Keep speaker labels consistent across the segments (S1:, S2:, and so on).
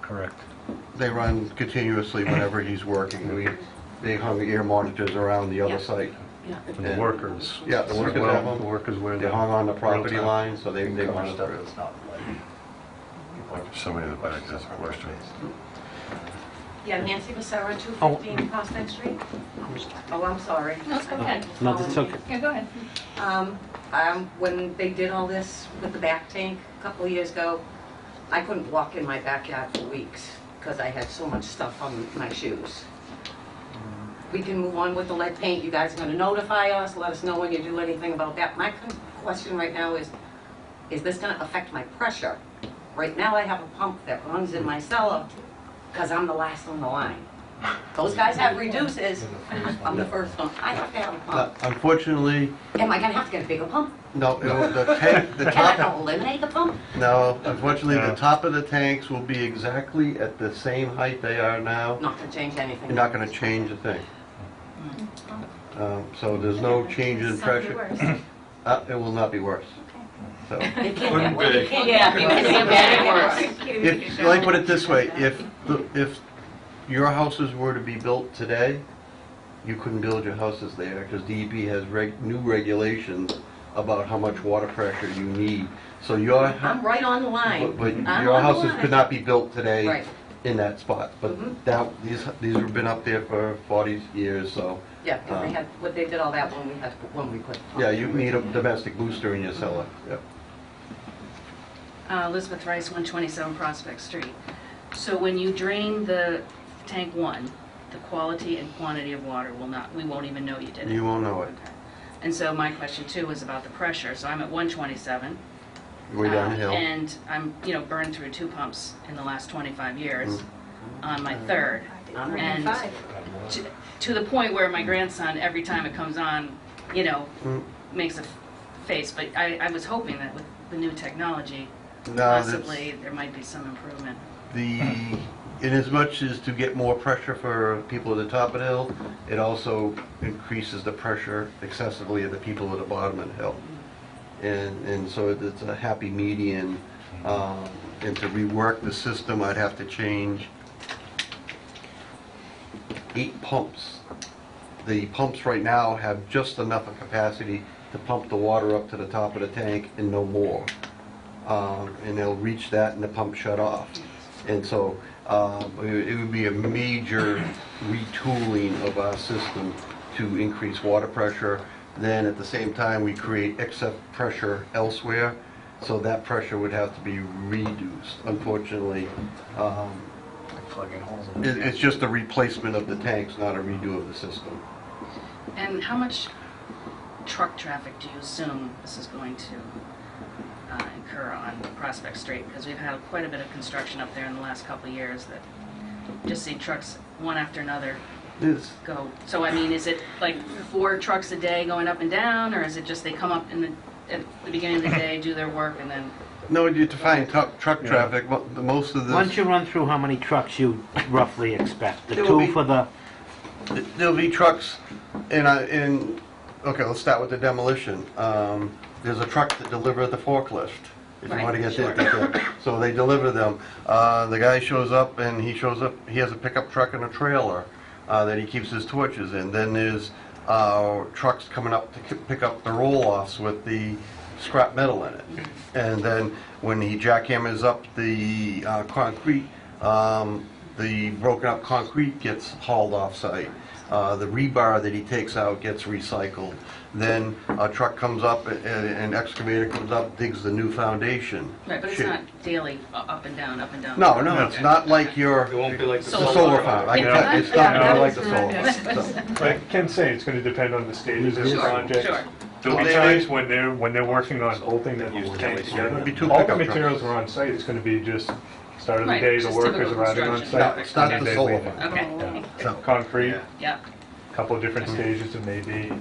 S1: correct.
S2: They run continuously whenever he's working. We, they hung ear monitors around the
S3: Yeah.
S2: other site.
S3: Yeah.
S1: And the
S2: And-
S1: workers.
S2: Yeah, the
S1: as
S2: workers
S1: well.
S2: have them.
S1: The workers wear
S2: They
S1: them.
S2: hung on the property
S1: Real-time.
S2: line, so they,
S4: Cover
S2: they
S4: stuff
S2: monitor it.
S4: that's not like-
S5: Like somebody in the back has a question.
S3: Yeah, Nancy Becerra,
S1: Oh.
S3: 215 Prospect Street. Oh, I'm sorry.
S6: No, it's okay.
S1: No, that's okay.
S6: Yeah, go ahead.
S3: Um, um, When they did all this with the back tank a couple of years ago, I couldn't walk in my backyard for weeks because I had so much stuff on my shoes. We can move on with the lead paint. You guys are going to notify us, let us know when you do anything about that. My con- question right now is, is this going to affect my pressure? Right now, I have a pump that runs in my cellar because I'm the last on the line. Those guys have reduces, I'm the first one. I have to have a
S2: Uh,
S3: pump.
S2: Unfortunately,
S3: Am I going to have to get a bigger pump?
S2: no, no, the tank, the
S3: Can I
S2: top,
S3: not eliminate the pump?
S2: no, unfortunately, the
S1: No.
S2: top of the tanks will be exactly at the same height they are now.
S3: Not gonna change anything.
S2: You're not going to change a thing. Um, So there's no change in pressure. Uh, It will not be worse. So,
S3: It can't get, it can't
S6: Yeah,
S3: get,
S6: because
S3: it
S6: it's
S3: can't get
S6: bad
S3: any worse.
S2: if, let me put it this way, if, the- if your houses were to be built today, you couldn't build your houses there because DEP has reg, new regulations about how much water pressure you need. So your,
S3: I'm
S2: hou-
S3: right on the line.
S2: Uh-huh. but but
S3: I'm
S2: your
S3: on the
S2: houses could
S3: line.
S2: not be built
S3: Right.
S2: today in that spot.
S3: Mhm.
S2: But that, these, these have been up there for 40 years, so,
S3: Yeah, 'cause they had, what they did all that when we had, when we put.
S2: Uh-huh. yeah, you need a domestic booster in your cellar. Yep.
S7: Uh, Elizabeth Rice, 127 Prospect Street. So when you drain the tank one, the quality and quantity of water will not, we won't even know you did
S2: You
S7: it.
S2: won't know it.
S7: And so my question too was about the pressure. So I'm at 127.
S2: Way
S7: uh,
S2: downhill.
S7: And I'm, you know, burned through two pumps in the last 25
S2: Mm.
S7: years on my third.
S3: I'm right
S7: And-
S3: on five.
S7: To- To the point where my grandson, every time it comes on, you know,
S2: Mm.
S7: makes a face. But I, I was hoping that with the new technology,
S2: No, that's-
S7: possibly, there might be some improvement.
S2: The, in as much as to get more pressure for people at the top of the hill, it also increases the pressure excessively of the people at the bottom of the hill. And, and so it's a happy median. Um, And to rework the system, I'd have to change eight pumps. The pumps right now have just enough of capacity to pump the water up to the top of the tank and no more. Um, and they'll reach that and the pump shut off. And so um, it would- it would be a major retooling of our system to increase water pressure. Then at the same time, we create excess pressure elsewhere, so that pressure would have to be reduced, unfortunately. Um,
S4: like plugging holes in.
S2: it- It's just a replacement of the tanks, not a redo of the system.
S7: And how much truck traffic do you assume this is going to uh, incur on Prospect Street? Because we've had quite a bit of construction up there in the last couple of years that just see trucks one after another
S2: It's-
S7: go. So I mean, is it like four trucks a day going up and down, or is it just they come up in the, at the beginning of the day, do their work, and then?
S2: No, you define truck truck traffic, mo- the- most of
S1: Why don't
S2: this,
S1: you run through how many trucks you roughly expect? The
S2: There will
S1: two
S2: be-
S1: for the,
S2: there'll be trucks, and I, and, okay, let's start with the demolition. Um, There's a truck that delivered the forklift, if you
S7: Right,
S2: want to get
S7: sure.
S2: that. that's it. So they deliver them. Uh, The guy shows up, and he shows up, he has a pickup truck and a trailer uh, that he keeps his torches in. Then there's uh, trucks coming up to ki- pick up the roll-offs with the scrap metal in it. And then when he jackhammers up the uh, concrete, um, the broken-up concrete gets hauled off-site. Uh, The rebar that he takes out gets recycled. Then a truck comes up, a- a- an excavator comes up, digs the new foundation.
S7: Right, but it's
S2: Shit.
S7: not daily, u- up and down, up and down.
S2: No, no, it's not like your,
S4: It won't be like the.
S2: the solar farm. I can tell you, it's not
S7: Yeah.
S2: gonna be like the solar farm. so.
S8: I can say it's going to depend on the stage of this
S2: Sure,
S8: project.
S7: Sure.
S8: There'll be times when they're, when they're working on bolting and
S4: It's
S8: tank
S4: always-
S8: together.
S2: It'll be two
S8: All the
S2: pickup trucks.
S8: materials are on site, it's going to be just start of the
S7: Right,
S8: day, the
S7: just
S8: workers
S7: typical
S8: arriving on
S7: construction.
S2: No,
S8: site.
S2: it's not
S8: and
S2: the
S8: then
S2: solar
S8: leaving.
S2: farm.
S7: Okay,
S2: So, Mm-hmm.
S8: Concrete,
S7: yeah.
S8: couple of different stages and maybe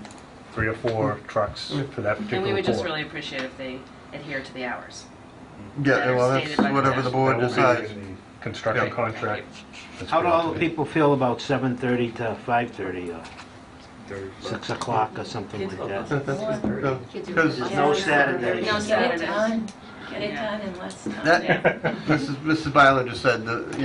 S8: three or four trucks for that particular pour.
S7: Mm. And we would just really appreciate if they adhere to the hours.
S2: yeah, well, that's
S7: Stated by the
S2: whatever the
S7: statute.
S2: board
S8: That will be
S2: decides.
S8: in the construction
S2: Yeah.
S8: contract.
S5: That's
S1: how do
S5: what I'll
S1: all the people feel about 7:30 to 5:30 or 6 o'clock or something like that?
S2: Because
S6: There's
S1: no Saturday.
S6: No, get it done, get it done in less time.
S2: that, Mrs. Mrs. Byler just said, the-